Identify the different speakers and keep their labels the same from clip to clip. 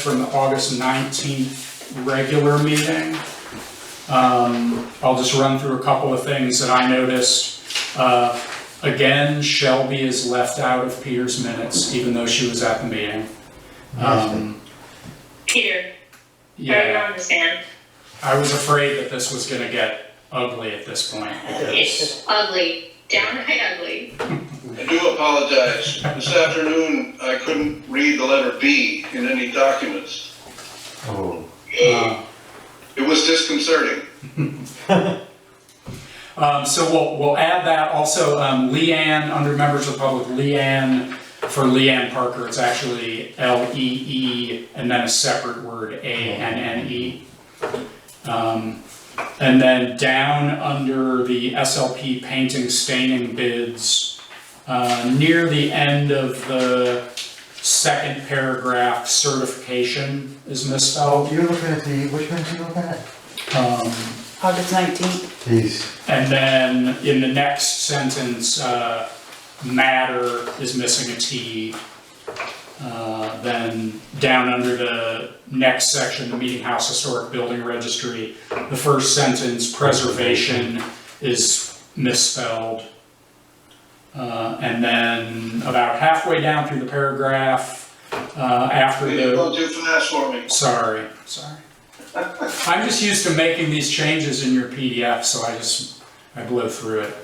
Speaker 1: from the August 19th regular meeting. Um, I'll just run through a couple of things that I noticed. Uh, Again, Shelby is left out of Peter's minutes, even though she was at the meeting. Um,
Speaker 2: Peter, I
Speaker 1: Yeah,
Speaker 2: don't understand.
Speaker 1: I was afraid that this was gonna get ugly at this point.
Speaker 2: It's ugly, downright ugly.
Speaker 3: I do apologize. This afternoon, I couldn't read the letter B in any documents.
Speaker 4: Oh,
Speaker 1: Uh,
Speaker 3: It was disconcerting.
Speaker 1: Um, so we'll, we'll add that also, um, Leanne, under members of the public, Leanne, for Leanne Parker, it's actually L E E and then a separate word, A N N E. Um, and then down under the SLP painting staining bids, uh, near the end of the second paragraph, certification is misspelled.
Speaker 4: you're looking at the, which ones you looking at?
Speaker 1: Um,
Speaker 5: August nineteenth,
Speaker 4: These,
Speaker 1: And then in the next sentence, uh, matter is missing a T. Uh, Then down under the next section, the Meeting House Historic Building Registry, the first sentence, preservation, is misspelled. Uh, And then about halfway down through the paragraph, uh, after
Speaker 3: It
Speaker 1: the.
Speaker 3: went too fast for me.
Speaker 1: Sorry, sorry. I'm just used to making these changes in your PDF, so I just, I blow through it.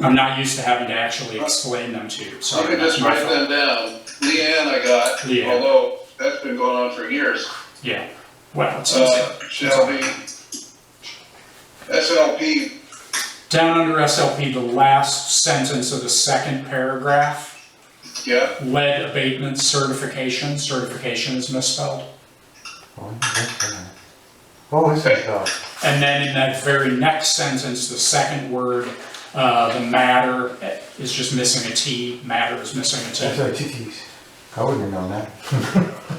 Speaker 1: I'm not used to having to actually explain them to you,
Speaker 3: I
Speaker 1: sorry.
Speaker 3: could just
Speaker 1: that's my
Speaker 3: write
Speaker 1: fault.
Speaker 3: them down. Leanne I got,
Speaker 1: Leanne.
Speaker 3: although that's been going on for years.
Speaker 1: Yeah, well, it's easy.
Speaker 3: Uh, Shelby, SLP,
Speaker 1: Down under SLP, the last sentence of the second paragraph,
Speaker 3: yeah,
Speaker 1: lead abatement certification, certification is misspelled.
Speaker 4: oh, that's, uh, oh, is that, uh,
Speaker 1: And then in that very next sentence, the second word, uh, the matter is just missing a T, matter is missing a T.
Speaker 4: that's our TTs. I wouldn't have known that.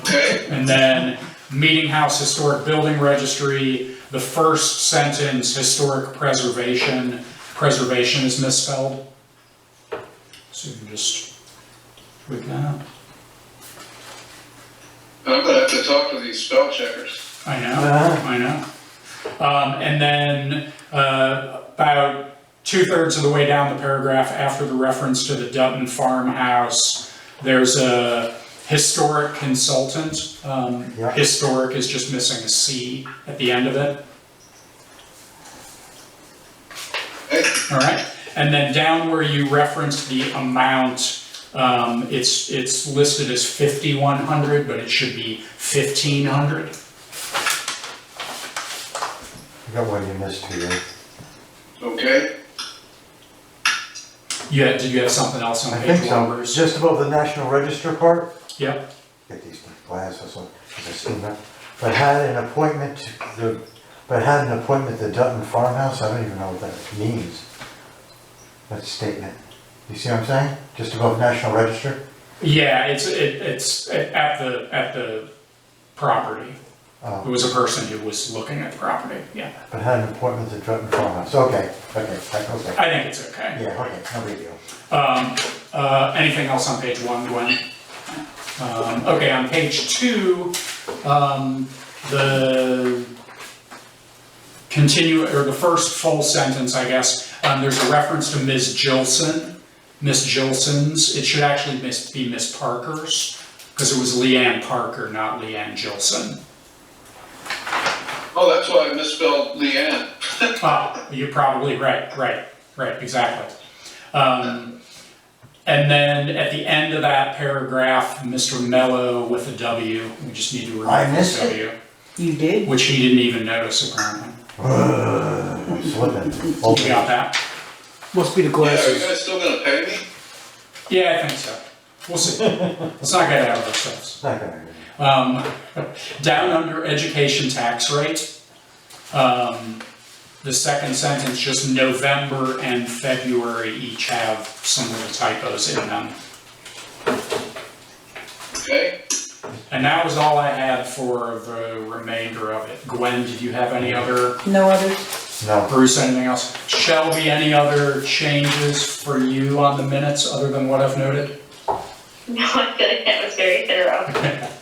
Speaker 3: okay,
Speaker 1: And then Meeting House Historic Building Registry, the first sentence, historic preservation, preservation is misspelled. So you can just tweak that out.
Speaker 3: and I'm gonna have to talk to these spell checkers.
Speaker 1: I know,
Speaker 4: Uh-huh.
Speaker 1: I know. Um, and then, uh, about two-thirds of the way down the paragraph, after the reference to the Dutton farmhouse, there's a historic consultant. Um,
Speaker 4: Yeah.
Speaker 1: historic is just missing a C at the end of it.
Speaker 3: Hey,
Speaker 1: All right, and then down where you referenced the amount, um, it's, it's listed as fifty-one hundred, but it should be fifteen hundred.
Speaker 4: I got one you missed here.
Speaker 3: okay,
Speaker 1: You had, did you have something else on
Speaker 4: I
Speaker 1: page
Speaker 4: think so,
Speaker 1: numbers?
Speaker 4: just above the National Register part,
Speaker 1: Yep,
Speaker 4: get these glasses on, 'cause I seen that. But had an appointment to the, but had an appointment to Dutton Farmhouse, I don't even know what that means. That's a statement. You see what I'm saying? Just above National Register?
Speaker 1: yeah, it's, it, it's at the, at the property.
Speaker 4: Oh.
Speaker 1: It was a person who was looking at the property, yeah.
Speaker 4: But had an appointment to Dutton Farmhouse, okay, okay, I- okay.
Speaker 1: I think it's okay.
Speaker 4: Yeah, okay, no big deal.
Speaker 1: Um, uh, anything else on page one, Gwen? Um, okay, on page two, um, the continue, or the first full sentence, I guess, um, there's a reference to Ms. Jilson, Ms. Jilson's, it should actually mis- be Ms. Parker's, because it was Leanne Parker, not Leanne Jilson.
Speaker 3: oh, that's why I misspelled Leanne.
Speaker 1: Ah, you're probably right, right, right, exactly. Um, and then at the end of that paragraph, Mr. Mello with a W, we just need to remove
Speaker 4: I missed
Speaker 1: the W,
Speaker 5: you did?
Speaker 1: which he didn't even notice apparently.
Speaker 4: I'm slipping. Oh,
Speaker 1: You got that?
Speaker 6: Must be the
Speaker 3: Yeah, are you
Speaker 6: glasses.
Speaker 3: guys still gonna pay me?
Speaker 1: Yeah, I think so. We'll see. Let's not get out of ourselves.
Speaker 4: it's not gonna-
Speaker 1: Um, down under education tax rate, um, the second sentence, just November and February each have some little typos in them.
Speaker 3: Okay,
Speaker 1: And that was all I had for the remainder of it. Gwen, did you have any other,
Speaker 5: No others?
Speaker 4: No,
Speaker 1: Bruce, anything else? Shelby, any other changes for you on the minutes other than what I've noted?
Speaker 2: No, I feel like that was very thorough.